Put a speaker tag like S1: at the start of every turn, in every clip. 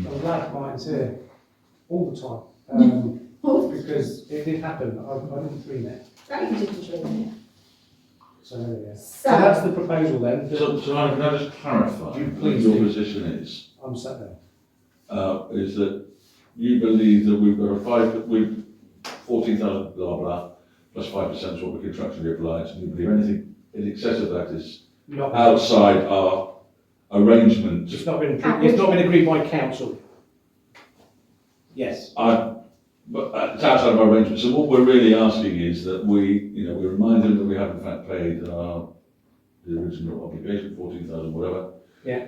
S1: the lad minds here all the time. Um, because it did happen, I, I didn't dream it,
S2: That you didn't dream
S1: so yeah.
S2: it.
S1: So that's
S2: So,
S1: the proposal then,
S3: So,
S1: that
S3: so I, can I just clarify?
S1: You please
S3: Your
S1: do.
S3: position is,
S1: I'm sat there.
S3: uh, is that you believe that we've got a five, we've fourteen thousand blah blah, plus five percent is what we're contractually obliged, and you believe anything in excess of that is
S1: Not,
S3: outside our arrangement.
S1: it's not been, it's not been agreed by council. Yes,
S3: I, but uh, it's outside of our arrangement, so what we're really asking is that we, you know, we remind them that we have in fact paid our, the original obligation, fourteen thousand, whatever.
S1: Yeah.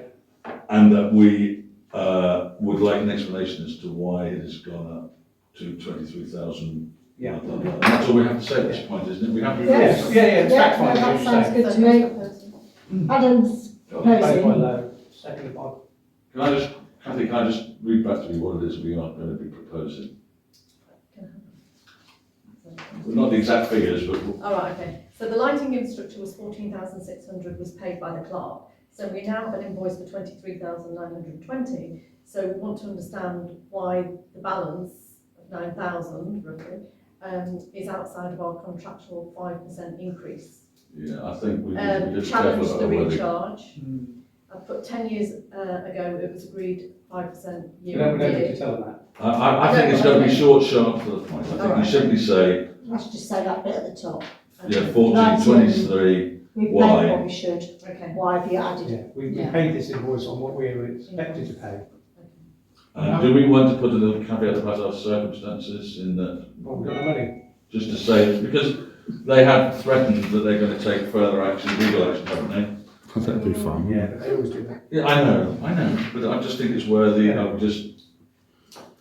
S3: And that we, uh, would like an explanation as to why it has gone up to twenty-three thousand.
S1: yeah.
S3: That's all we have to say at this point, isn't it? We have to.
S1: Yes, yeah, yeah, it's fact
S4: Yeah, no,
S1: finding,
S4: that
S1: as you
S4: sounds
S1: say.
S4: good to me. Adam's
S3: Can
S1: Made by
S4: proposing,
S1: Lowe, seconded by
S3: I just, Cathy, can I just read back to you what it is we are going to be proposing? Well, Not the exact figures, but
S5: All right, okay. So the lighting instructor was fourteen thousand six hundred, was paid by the clerk. So we now have an invoice for twenty-three thousand nine hundred twenty. So we want to understand why the balance of nine thousand roughly um, is outside of our contractual five percent increase.
S3: Yeah, I think we need to be
S5: Um,
S3: just careful
S5: challenge
S3: about
S5: the
S3: where they-
S5: recharge. I put ten years uh, ago, it was agreed five percent
S1: We
S5: year
S1: don't, we don't
S5: on
S1: need to
S5: year.
S1: tell them
S3: I, I, I think it's going to be short, sharp to the point. I think we
S5: Alright.
S3: simply say,
S4: let's just say that bit at the top.
S3: yeah, fourteen, twenty-three,
S4: We've paid
S3: Why?
S4: what we should,
S5: Okay.
S4: why have you
S1: that,
S4: added?
S1: yeah. We, we
S2: Yeah.
S1: paid this invoice on what we were expected to pay.
S3: and Um, do we want to put a little caveat about our circumstances in that,
S1: Well, we got the money.
S3: just to say, because they have threatened that they're going to take further action, legal action, haven't
S6: That'd be fun.
S1: Yeah, but they always do that.
S3: they? Yeah, I know, I know, but I just think it's worthy of just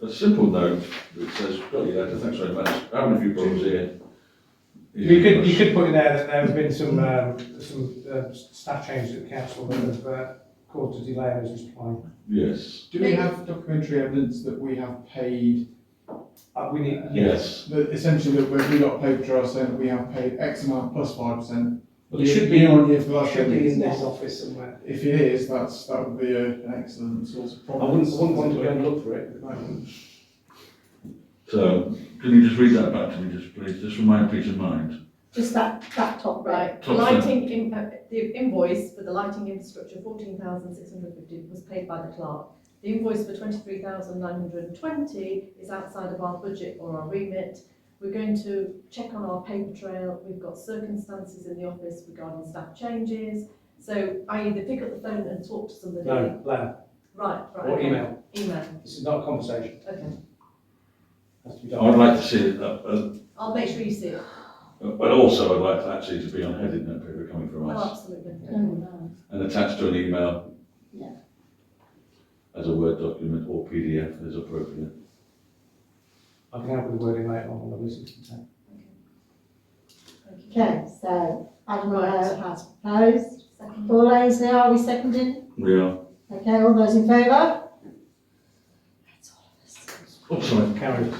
S3: a simple note that says, got your letter, thanks very much, having a few problems here.
S1: You could, you could put in there that there have been some, um, some, uh, staff changes at the council that have, uh, caused a delay in us replying.
S3: Yes,
S7: Do we have documentary evidence that we have paid,
S1: Uh, we need, yes.
S3: yes.
S7: that essentially that we've got paid for ourselves, that we have paid X amount plus five percent?
S1: It should be-
S7: Year on year for the
S1: It
S7: last
S1: should be in
S7: year.
S1: this office somewhere.
S7: If it is, that's, that would be a- an excellent source of
S1: I
S7: problem.
S1: wouldn't, I wouldn't want to go and look for it at the moment.
S3: So, can you just read that back to me, just please, just for my peace of mind?
S4: Just that, that top bit.
S5: Right,
S3: Top
S5: lighting, in- uh, the invoice for the lighting infrastructure, fourteen thousand six hundred fifty, was paid by the clerk. The invoice for twenty-three thousand nine hundred and twenty is outside of our budget or our remit. We're going to check on our paper trail, we've got circumstances in the office regarding staff changes. So I either pick up the phone and talk to somebody.
S1: No, no,
S5: Right, right.
S1: or
S5: okay.
S1: email.
S5: Email,
S1: This is not a conversation.
S5: okay.
S1: Has to be
S3: I'd
S1: done.
S3: like to see it, uh, uh,
S5: I'll make sure you see it.
S3: but also I'd like to actually to be on headed note paper coming from
S5: Oh,
S3: us
S5: absolutely.
S4: Mm.
S3: and attached to an email.
S4: Yeah.
S3: As a Word document or PDF as appropriate.
S1: I can help with the wording later on, on the list.
S5: Thank you.
S4: Okay, so Adam
S5: Right.
S4: Rowe has proposed.
S5: Second.
S4: Four lanes now, are we seconding?
S3: We are,
S4: Okay, all those in favour? That's all of us.
S3: oh, sorry,
S1: Carried.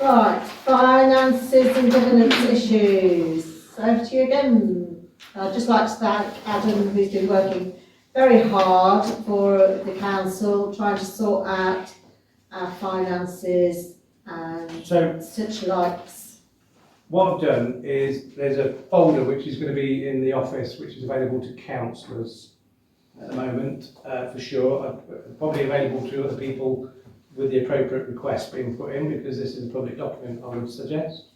S4: Right, finances and governance issues. Over to you again. I'd just like to thank Adam, who's been working very hard for the council, trying to sort out our finances and
S1: So
S4: such likes.
S1: What I've done is there's a folder which is going to be in the office, which is available to councillors at the moment, uh, for sure. Uh, Probably available to other people with the appropriate request being put in, because this is a public document, I would suggest.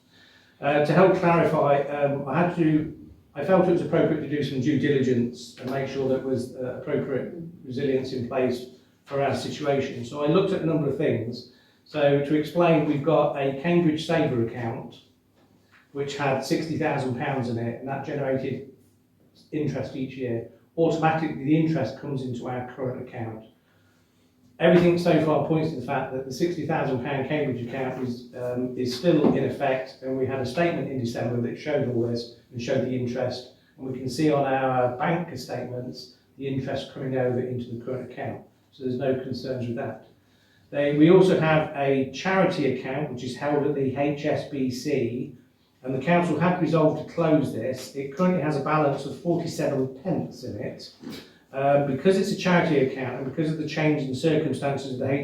S1: Uh, to help clarify, um, I had to, I felt it was appropriate to do some due diligence and make sure that was uh, appropriate resilience in place for our situation. So I looked at a number of things. So to explain, we've got a Cambridge Saver account, which had sixty thousand pounds in it, and that generated interest each year. Automatically, the interest comes into our current account. Everything so far points to the fact that the sixty thousand pound Cambridge account is, um, is still in effect, and we had a statement in December that showed all this and showed the interest. And we can see on our bank statements, the interest coming over into the current account, so there's no concerns with that. They, we also have a charity account, which is held at the HSBC, and the council had resolved to close this. It currently has a balance of 47 Um, pence in it. Uh, because it's a charity account and because of the change in circumstances of the